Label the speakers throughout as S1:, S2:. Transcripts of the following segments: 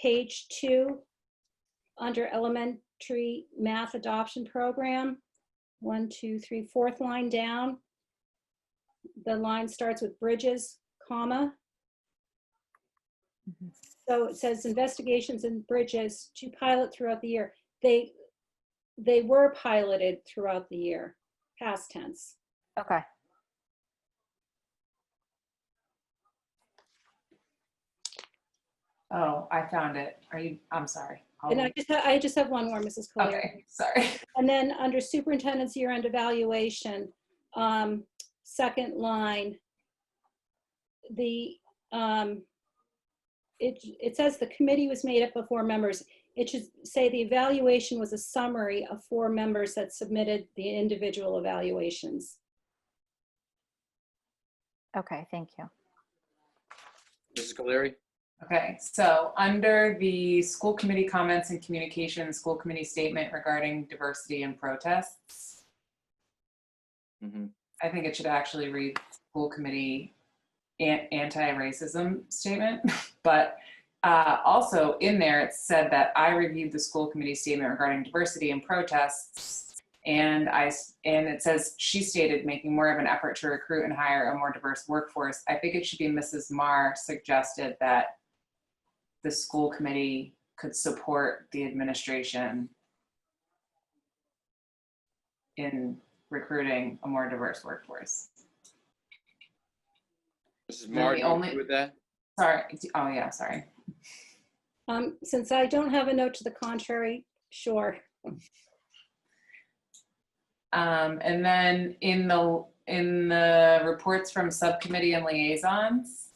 S1: page two, under elementary math adoption program, one, two, three, fourth line down. The line starts with bridges, comma.
S2: Mhm.
S1: So it says investigations and bridges to pilot throughout the year. They, they were piloted throughout the year, past tense.
S2: Okay.
S3: Oh, I found it. Are you, I'm sorry. I'll
S1: And I
S3: wait.
S1: just, ha- I just have one more, Mrs. Collier.
S3: Oh. Okay, sorry.
S1: And then under superintendent's year-end evaluation, um, second line, the, um, it, it says the committee was made up of four members. It should say the evaluation was a summary of four members that submitted the individual evaluations.
S2: Okay. Thank you.
S4: Mrs. O'Leary?
S3: Okay, so under the school committee comments and communication, school committee statement regarding diversity and protests,
S4: Mhm.
S3: I think it should actually read school committee an- anti-racism statement. But uh, also in there, it said that I reviewed the school committee statement regarding diversity and protests. And I, s- and it says, she stated, making more of an effort to recruit and hire a more diverse workforce. I think it should be Mrs. Marr suggested that the school committee could support the administration in recruiting a more diverse workforce.
S4: Mrs.
S3: the
S4: Marr, do you
S3: only-
S4: agree with that?
S3: Sorry, oh yeah, sorry.
S1: Um, since I don't have a note to the contrary, sure.
S3: Um, and then in the, in the reports from subcommittee and liaisons,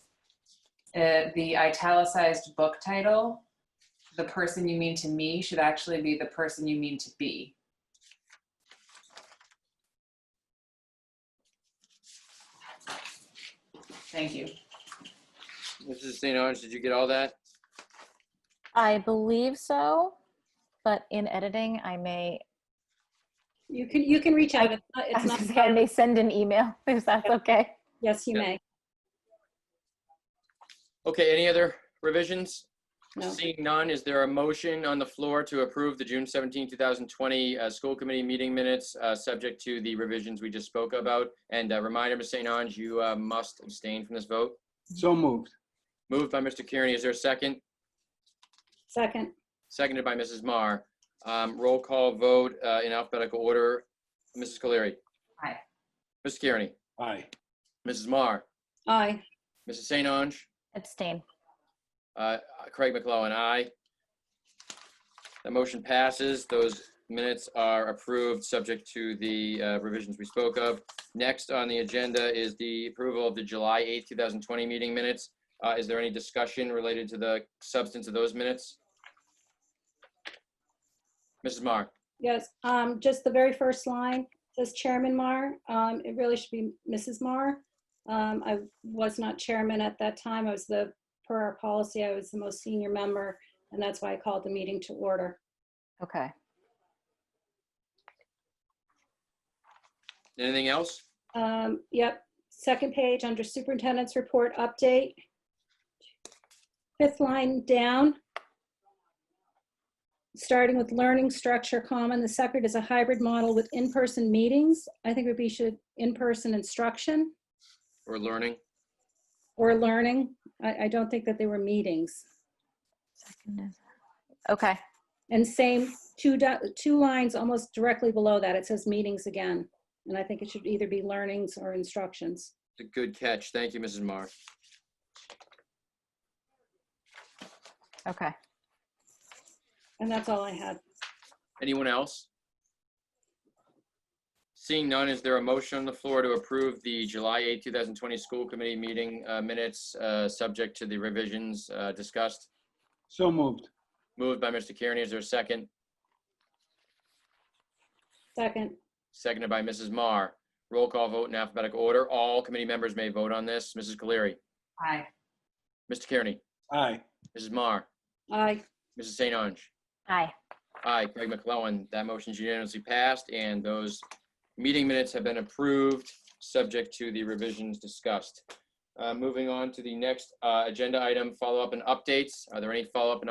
S3: uh, the italicized book title, The Person You Mean to Me, should actually be The Person You Mean to Be. Thank you.
S4: Mrs. St. Orange, did you get all that?
S2: I believe so, but in editing, I may,
S1: You can, you can reach out. It's not-
S2: I
S1: It's
S2: was
S1: not,
S2: gonna say I may send an email if that's okay.
S1: yes, you
S4: Yeah.
S1: may.
S4: Okay, any other revisions?
S1: No.
S4: Seeing none, is there a motion on the floor to approve the June 17, 2020 uh, school committee meeting minutes, uh, subject to the revisions we just spoke about? And a reminder, Ms. St. Ange, you uh, must abstain from this vote.
S5: So moved.
S4: Moved by Mr. Kearney, is there a second?
S1: Second,
S4: Seconded by Mrs. Marr. Um, Roll call vote uh, in alphabetical order. Mrs. Colery?
S3: Aye.
S4: Mr. Kearney?
S5: Aye.
S4: Mrs. Marr?
S1: aye.
S4: Mrs. St. Ange?
S2: Abstain.
S4: Uh, Craig McClellan, aye. The motion passes. Those minutes are approved, subject to the uh, revisions we spoke of. Next on the agenda is the approval of the July 8th, 2020 meeting minutes. Uh, Is there any discussion related to the substance of those minutes? Mrs. Marr?
S1: Yes, um, just the very first line says Chairman Marr. Um, it really should be Mrs. Marr. Um, I was not chairman at that time. I was the, per our policy, I was the most senior member, and that's why I called the meeting to order.
S2: Okay.
S4: Anything else?
S1: Um, yep, second page under superintendent's report update. Fifth line down. Starting with learning structure common, the Secret is a hybrid model with in-person meetings. I think it would be should, in-person instruction.
S4: Or learning?
S1: or learning. I, I don't think that they were meetings.
S2: Second is- Okay.
S1: And same, two, do- two lines almost directly below that, it says meetings again. And I think it should either be learnings or instructions.
S4: It's a Good catch. Thank you, Mrs. Marr.
S2: Okay.
S1: And that's all I had.
S4: Anyone else? Seeing none, is there a motion on the floor to approve the July 8, 2020 school committee meeting uh, minutes, uh, subject to the revisions uh, discussed?
S5: So moved.
S4: Moved by Mr. Kearney, is there a second?
S1: Second,
S4: Seconded by Mrs. Marr. Roll call vote in alphabetical order. All committee members may vote on this. Mrs. Cleary,
S3: Aye.
S4: Mr. Kearney,
S5: Aye.
S4: Mrs. Marr,
S1: aye.
S4: Mrs. St. Ange.
S2: Aye.
S4: Aye, Craig McClellan. That motion is unanimously passed, and those meeting minutes have been approved, subject to the revisions discussed. Uh, Moving on to the next uh, agenda item, follow-up and updates. Are there any follow-up and